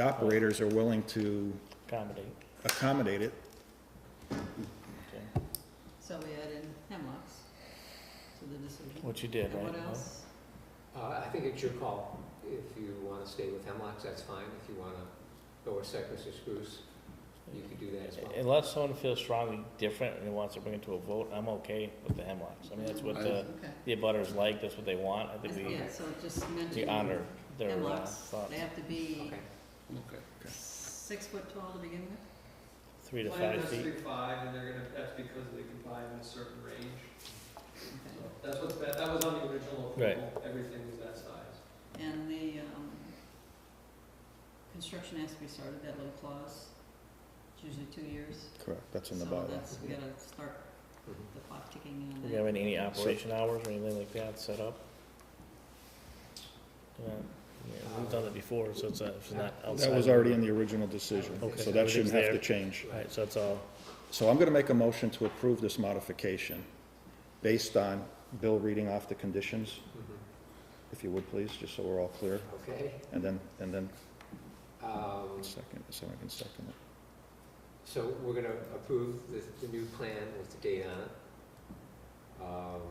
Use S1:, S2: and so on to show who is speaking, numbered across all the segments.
S1: the operators are willing to
S2: accommodate.
S1: accommodate it.
S2: Okay.
S3: So we add in hemlocks to the decision.
S2: What you did,
S3: And
S2: right?
S3: what else?
S4: Uh, I think it's your call. If you want to stay with hemlocks, that's fine. If you want to go with cypress or spruce, you could do that as well.
S2: Unless someone feels strongly different and wants to bring it to a vote, I'm okay with the hemlocks. I mean, that's what the,
S3: Okay.
S2: the abutters like, that's what they want. I think we,
S3: Yeah, so just
S2: we
S3: mention
S2: honor their uh,
S3: hemlocks.
S2: thoughts.
S3: They have to be
S4: Okay.
S3: six foot tall to begin with?
S2: Three to five feet.
S5: five, and they're gonna, that's because they can buy in a certain range.
S4: Mm-hmm.
S3: Okay.
S5: That's what's, that, that was on the original
S2: Right.
S5: approval, everything was that size.
S3: And the, um, construction has to be started, that little clause, it's usually two years.
S1: Correct, that's in the
S3: So
S1: bylaw.
S3: that's, we gotta start
S4: Mhm.
S3: the clock ticking
S2: Mm-hmm. Do
S3: on
S2: you
S3: that.
S2: have any, any operation hours or anything like that set up? Yeah, yeah, we've done it before, so it's, not- it's not outside.
S1: That was
S2: of-
S1: already in the original decision,
S2: Okay.
S1: so that shouldn't have to
S2: Everything's
S1: change.
S2: All right, so it's all,
S1: So I'm gonna make a motion to approve this modification based on Bill reading off the conditions,
S4: Mhm.
S1: if you would please, just so we're all clear.
S4: Okay.
S1: And then, and then
S4: Um,
S1: second, someone can second it.
S4: So we're going to approve the, the new plan with the date on it, um,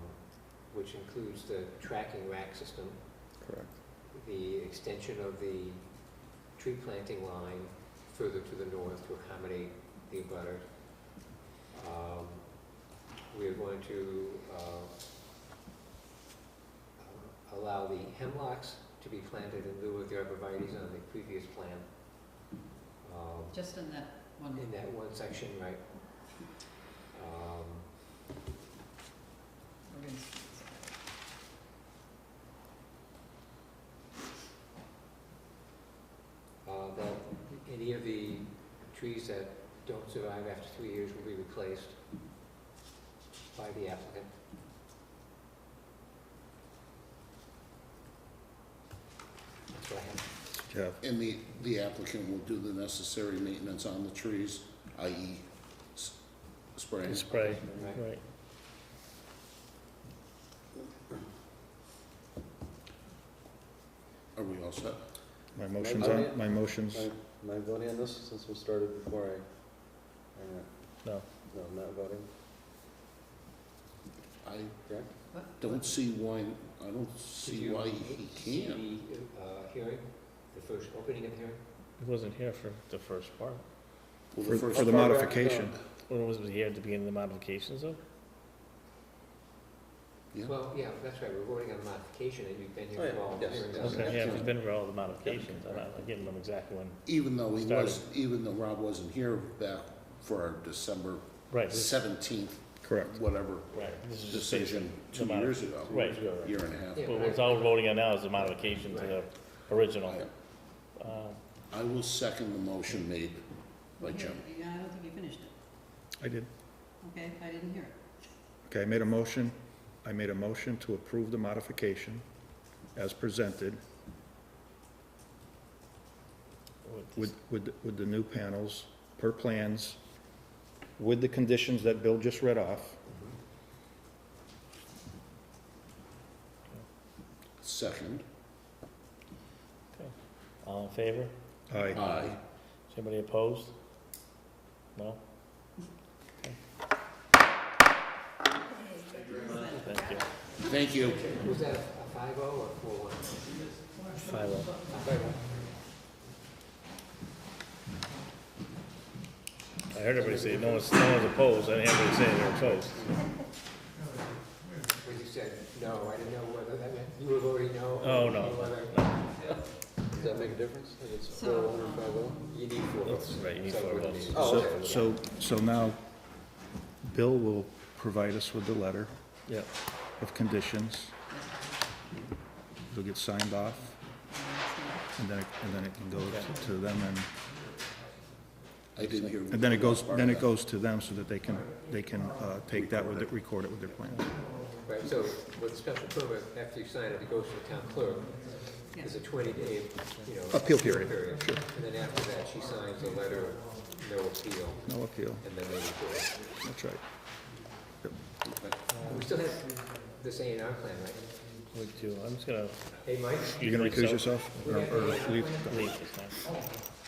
S4: which includes the tracking rack system,
S1: Correct.
S4: the extension of the tree planting line further to the north to accommodate the abutter. Um, We are going to uh, allow the hemlocks to be planted in lieu of the arborvitae's on the previous plan. Um,
S3: Just in that one.
S4: in that one section, right? Um,
S3: We're gonna s-
S4: uh, That any of the trees that don't survive after three years will be replaced by the applicant. That's what I have.
S1: Yeah,
S6: And the, the applicant will do the necessary maintenance on the trees, i.e. s- spraying.
S2: spray,
S4: Right.
S2: right.
S6: Are we all set?
S1: my motion's on, my motion's,
S7: Am I voting on this since we started before I, I'm not-
S2: No.
S7: no, I'm not voting?
S6: I
S3: what-
S6: don't see why, I don't
S4: Did
S6: see
S4: you
S6: why he
S4: see
S6: can't.
S4: the, uh, hearing, the first opening of the hearing?
S2: He wasn't here for the first part.
S6: Well,
S1: for,
S6: first uh, Oh.
S1: for the
S6: part-
S1: modification.
S2: Or was he here at the beginning of the modifications though?
S6: Yeah.
S4: Well, yeah, that's right, we're voting on the modification, and you've been
S7: Oh,
S4: here
S7: yeah,
S4: for all the
S7: yes.
S4: hearings.
S2: Okay, yeah, if he's been for all the modifications,
S4: modifications,
S2: I'm
S4: I'm
S2: not giving them exact one.
S6: Even though he
S2: Started.
S6: was, even though Rob wasn't here back for our December
S2: Right, this-
S6: seventeenth,
S1: Correct.
S6: whatever,
S2: right, this is just.
S6: decision two
S2: modi-
S6: years ago.
S2: Right.
S6: Year and a half.
S4: Yeah.
S2: But what's all we're voting on now is the modification to the original.
S6: I-
S2: Uh,
S6: I will second the motion made by Jim.
S3: Yeah, I don't think you finished it.
S1: I did.
S3: Okay, I didn't hear it.
S1: Okay, I made a motion, I made a motion to approve the modification as presented
S2: with this-
S1: with, with, with the new panels per plans, with the conditions that Bill just read off.
S6: Second,
S2: All in favor?
S1: Aye.
S6: aye.
S2: Is anybody opposed? No? Thank you.
S6: Thank you.
S4: Was that a five-oh or four-one?
S2: Five oh.
S4: Five-oh.
S2: I heard everybody say, no one's, no one's opposed, I didn't hear anybody say they're opposed.
S4: When you said no, I didn't know whether that meant you were voting no. or
S2: Oh, no.
S4: whether
S7: Does that make a difference? If it's
S3: So,
S7: four, one, or
S3: um,
S7: five, oh?
S4: You need four
S2: That's
S4: votes.
S2: right, you need
S4: So it
S2: four
S4: wouldn't
S2: votes.
S4: be-
S7: Oh,
S1: So,
S7: okay.
S1: so, so now, Bill will provide us with the letter
S2: Yeah.
S1: of conditions. It'll get signed off, and then, it- and then it can go to- to them, and,
S6: I didn't hear.
S1: and then it goes, then it goes to them so that they can, they can, uh, take that with, it, record it with their plans.
S4: Right, so with special permit, after you sign it, it goes to the town clerk. There's a twenty-day, you know.
S1: Appeal period, sure.
S4: And then after that, she signs a letter, of no appeal,
S1: No appeal,
S4: and then they record it.
S1: that's right.
S4: We still have this A and R plan, right?
S2: We do, I'm just gonna.
S4: Hey, Mike?
S1: You're gonna recuse
S2: Myself.
S1: yourself, or or leave?
S2: Leave this time.